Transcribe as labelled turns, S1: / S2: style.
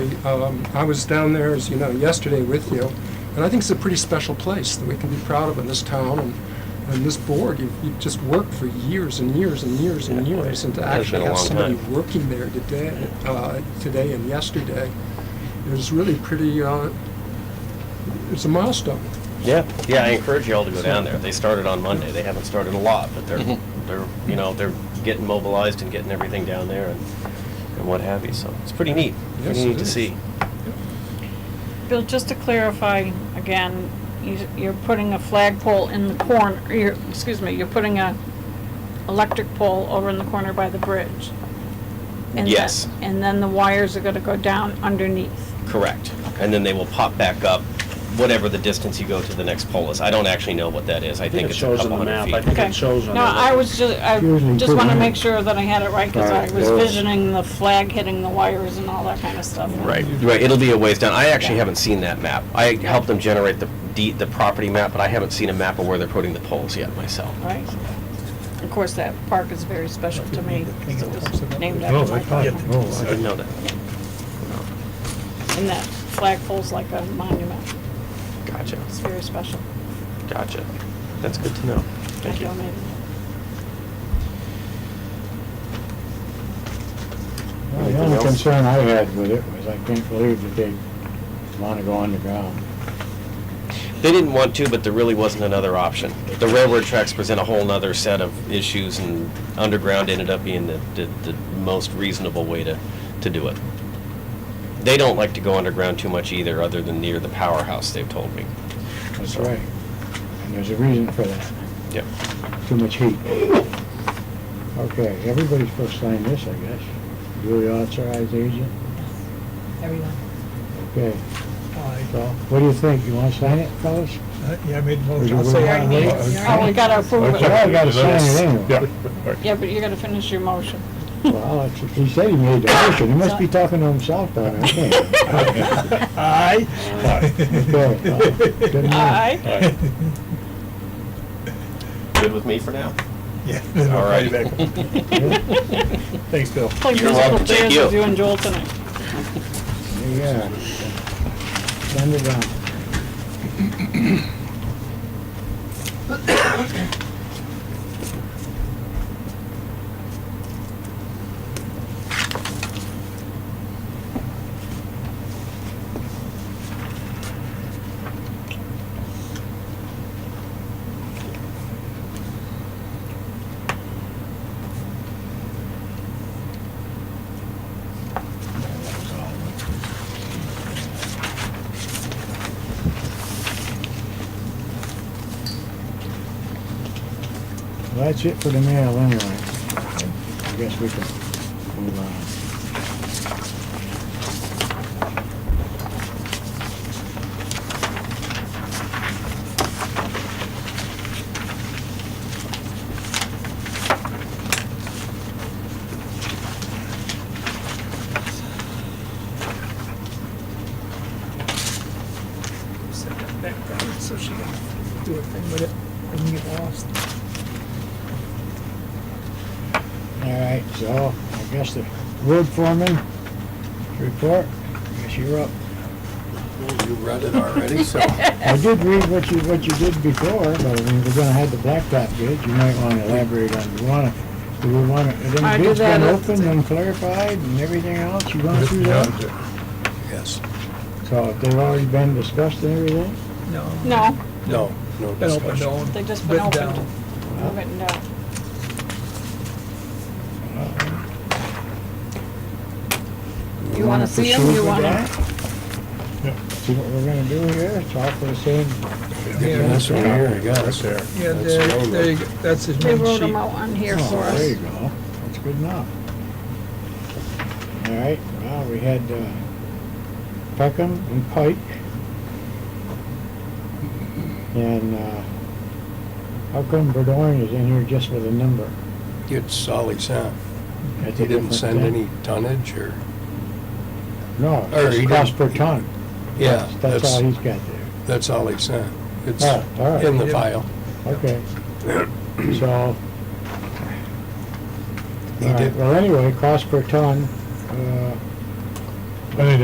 S1: Um, I was down there, as you know, yesterday with you, and I think it's a pretty special place that we can be proud of in this town and, and this board. You've, you've just worked for years and years and years and
S2: Yeah,
S1: years, and to
S2: it has
S1: actually
S2: been a
S1: have
S2: long
S1: somebody
S2: time.
S1: working there today, uh, today and yesterday, is really pretty, uh, it's a milestone.
S2: Yeah, yeah, I encourage you all to go down there. They started on Monday. They haven't started a lot, but they're, they're, you know, they're getting mobilized and getting everything down there and, and what have you, so it's pretty neat.
S1: Yes,
S2: Pretty
S1: it
S2: neat to
S1: is.
S2: see.
S3: Bill, just to clarify again, you- you're putting a flagpole in the corner, you're, excuse me, you're putting a electric pole over in the corner by the bridge. And the-
S2: Yes.
S3: And then the wires are gonna go down underneath.
S2: Correct. And then they will pop back up, whatever the distance you go to the next pole is. I don't actually know what that is. I
S4: I think
S2: think
S4: it
S2: it's a
S4: shows on
S2: couple
S4: the
S2: hundred
S4: map. I
S2: feet.
S4: think
S3: Okay.
S4: it shows on the...
S3: No, I was just, I
S1: Usually
S3: just wanna
S1: put it-
S3: make sure that I had it right, cause I
S4: Alright,
S3: was
S4: yeah.
S3: visioning the flag hitting the wires and all that kinda stuff.
S2: Right, right, it'll be a ways down. I actually haven't seen that map. I helped them generate the, de- the property map, but I haven't seen a map of where they're putting the poles yet myself.
S3: Right? Of course, that park is very special to me, 'cause it was named
S5: Oh,
S3: after my
S5: I
S3: father.
S5: thought, oh,
S2: I
S5: I-
S2: didn't know that.
S3: And that flagpole's like a monument.
S2: Gotcha,
S3: It's very special.
S2: gotcha. That's good to know. Thank
S3: I
S2: you.
S3: donated
S6: Well, The only concern I had with it was I can't believe that they want to go underground.
S2: They didn't want to, but there really wasn't another option. The railroad tracks present a whole nother set of issues, and underground ended up being the, the, the most reasonable way to, to do it. They don't like to go underground too much either, other than near the powerhouse, they've told me.
S6: That's right. And there's a reason for that.
S2: Yep.
S6: Too much heat. Okay, everybody's supposed to sign this, I guess. Duly authorized agent.
S7: Everyone.
S6: Okay.
S5: I-
S6: So, what do you think? You want to sign it, fellas?
S5: yeah, I made a
S6: Or
S5: motion.
S6: you
S5: I'll
S6: wouldn't
S5: say-
S6: wanna wait?
S3: Oh, we gotta approve
S6: Well, I
S3: it.
S6: gotta sign it anyway.
S5: Yeah.
S3: Yeah, but you gotta finish your motion.
S6: Well, it's- he said he made the motion. He must be talking to himself down there, I think.
S5: Aye.
S6: Okay, well, good enough.
S3: Aye.
S2: Good with me for now.
S5: Yeah. then I'll
S2: All
S5: call you
S2: right.
S5: back. Thanks, Bill.
S3: Play
S2: You're
S3: musical
S2: welcome. Thank
S3: chairs
S2: you.
S3: with you and Joel tonight.
S6: Yeah. Send it down. Well, that's it for the mail anyway. I guess we can move on.
S5: Set that back down so she can do her thing with it and get lost.
S6: All right, so I guess the road foreman report, I guess you're up.
S8: You read it already, so.
S6: I did read what you, what you did before, but I mean, we're gonna have the blacktop bid. You might wanna elaborate on, you wanna, do we wanna,
S3: I did
S6: then bid's
S3: that
S6: been
S3: at-
S6: opened and clarified and everything else? You gone through that?
S8: Yes.
S6: So they've already been discussed and everything?
S5: No.
S3: No,
S8: No, no
S5: Been open,
S8: discussion.
S5: no.
S3: they've just been
S5: Written
S3: opened.
S5: down.
S3: Written down. You wanna see him?
S6: Uh, proceed
S3: You
S6: with
S3: wanna?
S6: that? See what we're gonna do here? It's all for the same
S5: Yeah,
S8: That's right here, I got it.
S5: yeah,
S8: That's the
S5: there,
S8: old
S5: there
S8: one.
S5: you go. That's his
S3: They
S5: main
S3: wrote
S5: sheet.
S3: them out on here
S6: Oh,
S3: for
S6: There
S3: us.
S6: you go, that's good enough. All right, well, we had uh, Peckham and Pike. And uh, how come Burdoin is in here just with a number?
S8: It's Solly Sound.
S6: That's a
S8: He didn't
S6: different
S8: send
S6: thing.
S8: any tonnage or,
S6: No,
S8: or
S6: it's
S8: he
S6: cost per
S8: didn't-
S6: ton.
S8: yeah,
S6: That's
S8: that's,
S6: all he's got there.
S8: that's all he sent. It's
S6: Oh, all right.
S8: in the file.
S6: Okay. So.
S8: He
S6: all right,
S8: did-
S6: Well, anyway, cost per ton, uh,
S5: I think